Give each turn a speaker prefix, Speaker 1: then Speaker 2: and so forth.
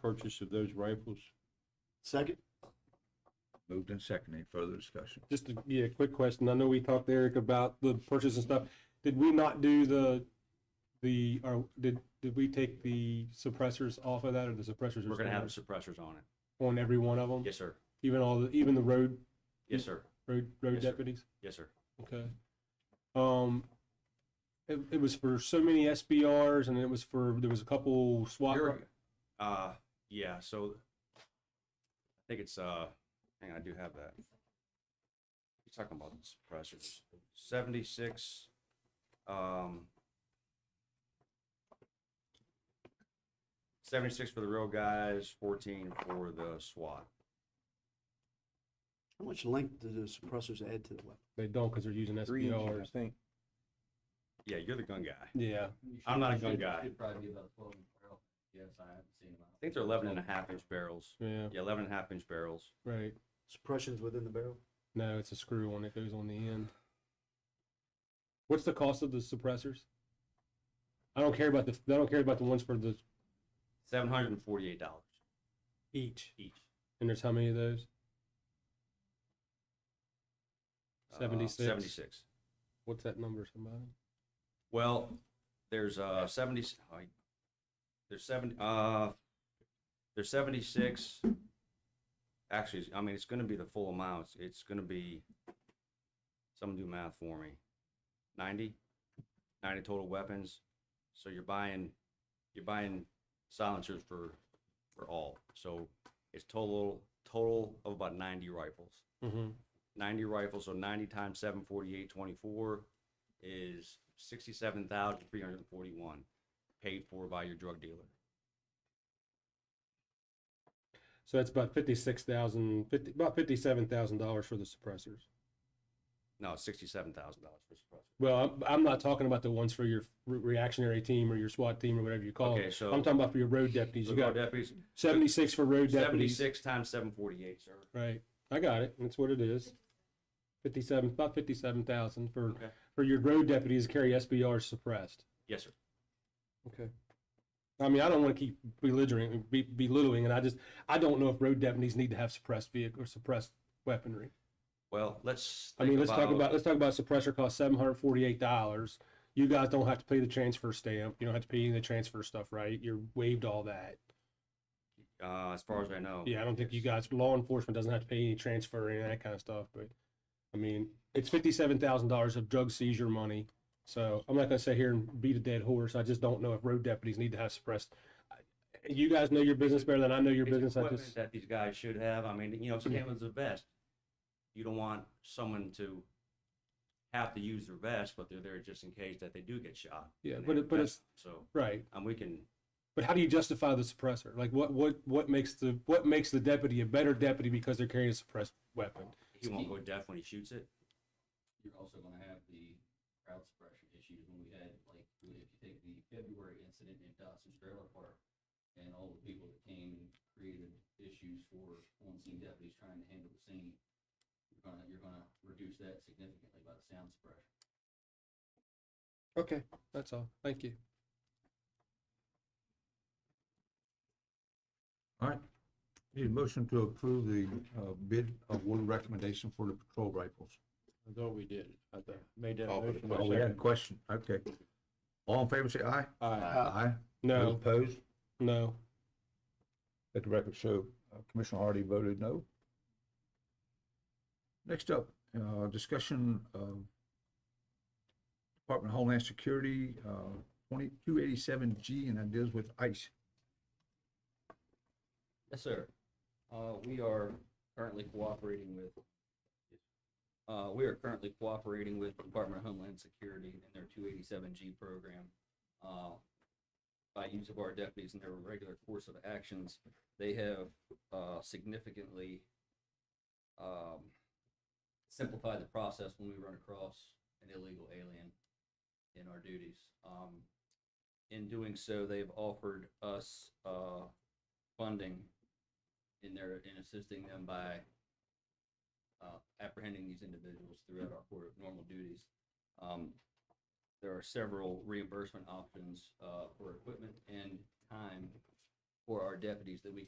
Speaker 1: purchase of those rifles?
Speaker 2: Second?
Speaker 3: Moved and seconded. Any further discussion?
Speaker 4: Just a, yeah, quick question. I know we talked to Eric about the purchase and stuff. Did we not do the, the, or did, did we take the suppressors off of that or the suppressors? are
Speaker 5: We're gonna
Speaker 4: still
Speaker 5: have the suppressors on it.
Speaker 4: On every one of them?
Speaker 5: Yes, sir.
Speaker 4: Even all the, even the road,
Speaker 5: Yes, sir.
Speaker 4: road, road
Speaker 5: Yes, sir.
Speaker 4: deputies?
Speaker 5: Yes, sir.
Speaker 4: Okay. Um, it, it was for so many SBRs and it was for, there was a couple SWAT.
Speaker 5: You're- Uh, yeah, so I think it's, uh, hang on, I do have that. You're talking about the suppressors. Seventy-six, um, seventy-six for the real guys, fourteen for the SWAT.
Speaker 2: How much length do the suppressors add to the weapon?
Speaker 4: They don't because they're using
Speaker 3: Three inches, I
Speaker 4: SBRs.
Speaker 3: think.
Speaker 5: Yeah, you're the gun guy. I
Speaker 4: Yeah,
Speaker 5: I'm not a gun guy.
Speaker 6: Should probably be about twelve barrel. Yes, I haven't seen them.
Speaker 5: think they're eleven and a half inch barrels.
Speaker 4: yeah,
Speaker 5: Yeah, eleven and a half inch barrels.
Speaker 4: right.
Speaker 2: Suppressions within the barrel?
Speaker 4: No, it's a screw on it goes on the end. What's the cost of the suppressors? I don't care about the I don't care about the ones for the
Speaker 5: Seven hundred and forty-eight dollars
Speaker 4: each.
Speaker 5: each.
Speaker 4: And there's how many of those?
Speaker 5: Uh,
Speaker 4: 76.
Speaker 5: Seventy-six.
Speaker 4: What's that number, somebody?
Speaker 5: Well, there's uh seventy. I- There's seventy. Uh, there's seventy-six. Actually, I mean, it's going to be the full amount. It's going to be. Someone do math for me. 90, 90 total weapons. So you're buying, you're buying silencers for, for all. So it's total total of about ninety rifles.
Speaker 4: Mm-hmm.
Speaker 5: 90 rifles, so 90 times 748, 24 is 67,341 paid for by your drug dealer.
Speaker 4: So that's about fifty six thousand, fifty about fifty seven thousand dollars for the suppressors.
Speaker 5: No, it's $67,000 for suppressor.
Speaker 4: Well, I'm, I'm not talking about the ones for your re- reactionary team or your SWAT team or whatever you call
Speaker 5: Okay,
Speaker 4: it.
Speaker 5: so-
Speaker 4: I'm talking about for your road deputies.
Speaker 5: So
Speaker 4: You
Speaker 5: road
Speaker 4: got
Speaker 5: deputies,
Speaker 4: seventy six for road deputies.
Speaker 5: 76 times 748, sir.
Speaker 4: Right. I got it. That's what it is. Fifty-seven, about fifty-seven thousand for,
Speaker 5: Okay.
Speaker 4: for your road deputies to carry SBR suppressed.
Speaker 5: Yes, sir.
Speaker 4: Okay. I mean, I don't want to keep belittling, be- belittling, and I just, I don't know if road deputies need to have suppressed vehicle or suppressed weaponry.
Speaker 5: Well, let's.
Speaker 4: I
Speaker 5: think
Speaker 4: mean, let's talk about, let's talk about suppressor cost seven hundred forty-eight dollars. You guys don't have to pay the transfer stamp. You don't have to pay any of the transfer stuff, right? You're waived all that.
Speaker 5: Uh, as far as I know.
Speaker 4: Yeah, I don't think you
Speaker 5: yes.
Speaker 4: guys, law enforcement doesn't have to pay any transfer and that kind of stuff, but, I mean, it's fifty-seven thousand dollars of drug seizure money. So I'm not gonna sit here and beat a dead horse. I just don't know if road deputies need to have suppressed. I- You guys know your business better than I know your
Speaker 5: It's
Speaker 4: business. I
Speaker 5: equipment
Speaker 4: just,
Speaker 5: That these guys should have. I mean, you know, Scanlon's the best. You don't want someone to have to use their vest, but they're there just in case that they do get shot.
Speaker 4: Yeah,
Speaker 5: and
Speaker 4: but
Speaker 5: they-
Speaker 4: it- but
Speaker 5: that's- So.
Speaker 4: right.
Speaker 5: and Um, we can
Speaker 4: But how do you justify the suppressor? Like what, what, what makes the, what makes the deputy a better deputy because they're carrying a suppressed weapon?
Speaker 5: he won't go deaf when he shoots it
Speaker 6: You're also gonna have the crowd suppression issues when we had, like, if you take the February incident in Dawson's Trailer Park and all the people that came created issues for on-scene deputies trying to handle the scene, you're gonna, you're gonna reduce that significantly by the sound suppression.
Speaker 4: Okay, that's all. Thank you.
Speaker 3: All right. Need a motion to approve the uh, bid award recommendation for the patrol rifles.
Speaker 1: I thought we did. I thought, made that
Speaker 3: Oh,
Speaker 1: motion.
Speaker 3: we had a question. Okay. All in favor, say aye.
Speaker 1: Aye.
Speaker 3: Aye. Those
Speaker 4: No,
Speaker 3: Opposed?
Speaker 4: no.
Speaker 3: Let the record show uh, Commissioner Hardy voted no. Next up, uh, discussion of Department of Homeland Security, uh, 2287G, and that deals with ICE.
Speaker 6: Yes, sir. Uh, we are currently cooperating with, uh, we are currently cooperating with Department of Homeland Security and their two eighty-seven G program. Uh, by use of our deputies in their regular course of actions, they have, uh, significantly, um, simplified the process when we run across an illegal alien in our duties. Um, in doing so, they've offered us, uh, funding in their, in assisting them by uh, apprehending these individuals throughout our court of normal duties. Um, There are several reimbursement options uh, for equipment and time
Speaker 5: for our deputies that we